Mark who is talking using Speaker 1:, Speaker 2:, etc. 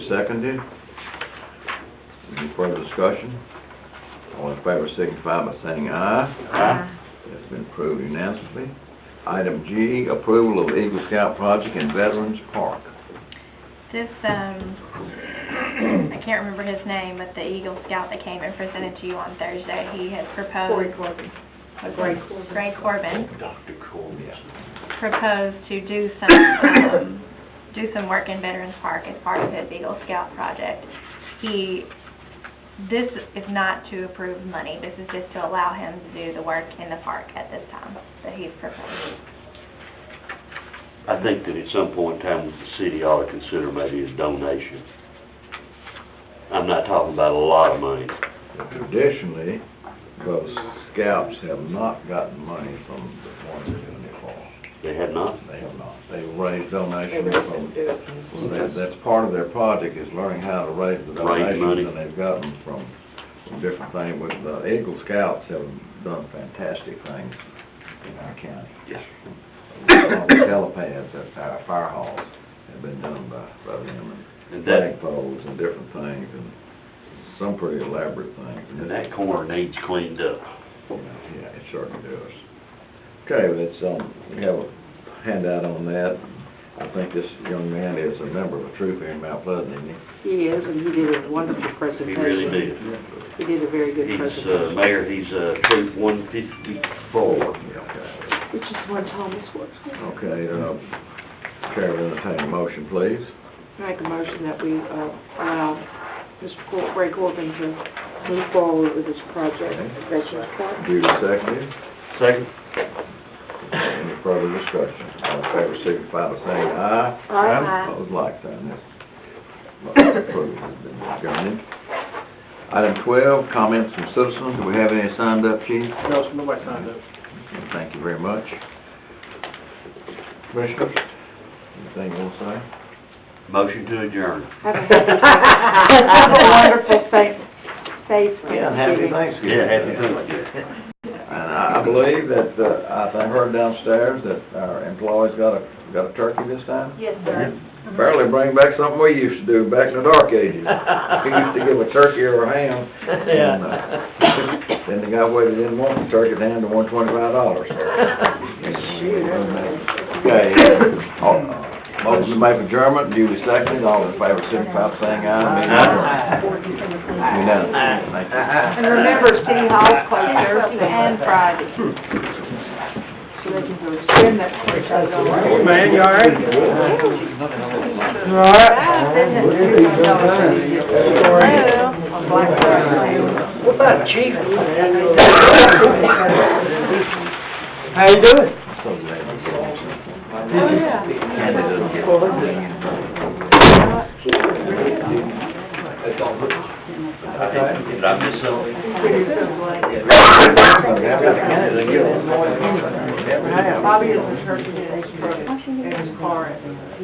Speaker 1: seconded. Any further discussion? All in favor signify by saying aye.
Speaker 2: Uh,
Speaker 1: It's been approved unanimously. Item G, approval of Eagle Scout project in Veterans Park.
Speaker 2: This, um, I can't remember his name, but the Eagle Scout that came and presented to you on Thursday, he had proposed.
Speaker 3: Corbin.
Speaker 2: was it
Speaker 3: Gray Corbin.
Speaker 2: Gray Corbin
Speaker 4: Dr. Corbin.
Speaker 2: proposed to do some, um, do some work in Veterans Park as part of his Eagle Scout project. He, this is not to approve money, this is just to allow him to do the work in the park at this time that he's proposing.
Speaker 4: I think that at some point in time, the city ought to consider maybe a donation. I'm not talking about a lot of money.
Speaker 1: Traditionally, those scouts have not gotten money from the ones that are in the fall.
Speaker 4: They had not.
Speaker 1: They have not. They raise
Speaker 3: They
Speaker 1: donations
Speaker 3: really
Speaker 1: from,
Speaker 3: didn't do it.
Speaker 1: well, that- that's part of their project is learning how to raise the
Speaker 4: Raise money.
Speaker 1: donations. And they've gotten from from different things. With the Eagle Scouts have done fantastic things in our county.
Speaker 4: Yes.
Speaker 1: The Telepads at our fire halls have been done by, by them and
Speaker 4: And that,
Speaker 1: flag poles and different things and some pretty elaborate things.
Speaker 4: and that corner needs cleaned up.
Speaker 1: Yeah, it certainly does. Okay, well, it's, um, we have a handout on that. I think this young man is a member of a troop here in Mount Pleasant, isn't he?
Speaker 3: He is, and he did a wonderful
Speaker 4: He
Speaker 3: presentation.
Speaker 4: really did.
Speaker 3: He did a very good
Speaker 4: He's, uh,
Speaker 3: presentation.
Speaker 4: mayor, he's, uh, troop one fifty-four.
Speaker 1: Yeah,
Speaker 3: Which is what Thomas works with.
Speaker 4: Oh.
Speaker 1: Okay, Okay, uh, Chair will entertain a motion, please.
Speaker 3: Make a motion that we, uh, allow Mr. Cor- Ray Corbin to move forward with his project, Veterans Park.
Speaker 1: Duly seconded.
Speaker 4: Second?
Speaker 1: Any further discussion? All in favor, signify by saying aye.
Speaker 3: Aye.
Speaker 1: Opposed, like sign, that's, that's approved, has been adjourned. Item twelve, comments from citizens, do we have any signed up, chief?
Speaker 5: No, so nobody signed up.
Speaker 1: And Thank you very much. Commissioners, anything you want to say?
Speaker 4: Motion to adjourn.
Speaker 3: Have a have a wonderful, safe, safe Thanksgiving.
Speaker 1: Thanksgiving.
Speaker 4: Yeah, happy Thanksgiving.
Speaker 1: And I I believe that, uh, I I heard downstairs that our employees got a, got a turkey this time?
Speaker 3: Yes,
Speaker 1: sir. Apparently bring back something we used to do back in the dark ages. We used to give a turkey or a ham. and, uh, Then the guy waited, didn't want the turkey, then the one twenty-five dollars. Okay, uh, all- motion to make adjournment, duly seconded, all in favor, signify by saying aye. Meeting adjourned. Unanimous. Thank you.
Speaker 3: And remember, City Hall's closed Thursday
Speaker 2: And
Speaker 3: and Friday. So they can go spend that place.
Speaker 5: Hey, man, you all right? You all right?
Speaker 3: On Black Friday.
Speaker 5: What about chief? How you doing?
Speaker 1: So glad you brought something.
Speaker 5: Oh, yeah.
Speaker 1: Candy doesn't get-
Speaker 4: Did I miss something?
Speaker 1: Candy doesn't get one more than you. Never have.
Speaker 3: Bobby is the church in his truck, in his car, and